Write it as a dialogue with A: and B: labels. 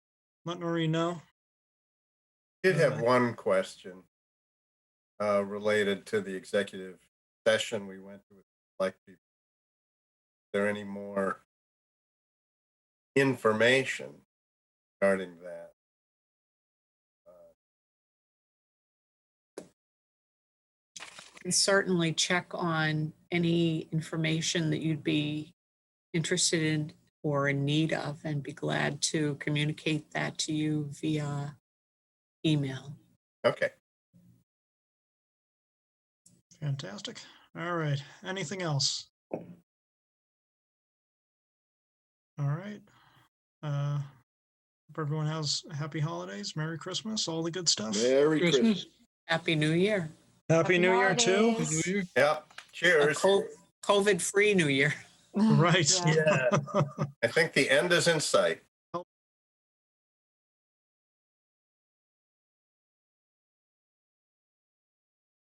A: Montgomery, no?
B: Did have
A: Uh,
B: one question uh, related to the executive session we went to with select people. Is there any more information regarding that?
C: can certainly check on any information that you'd be interested in or in need of and be glad to communicate that to you via email.
B: Okay,
A: Fantastic. All right. Anything else? All right. Uh, hope everyone has happy holidays, Merry Christmas, all the good stuff.
D: Merry
E: Christmas.
D: Christmas.
C: Happy New Year.
A: Happy New Year too.
E: holidays.
B: yep, cheers.
C: COVID free New Year.
A: Right.
E: Yeah.
B: I think the end is in sight.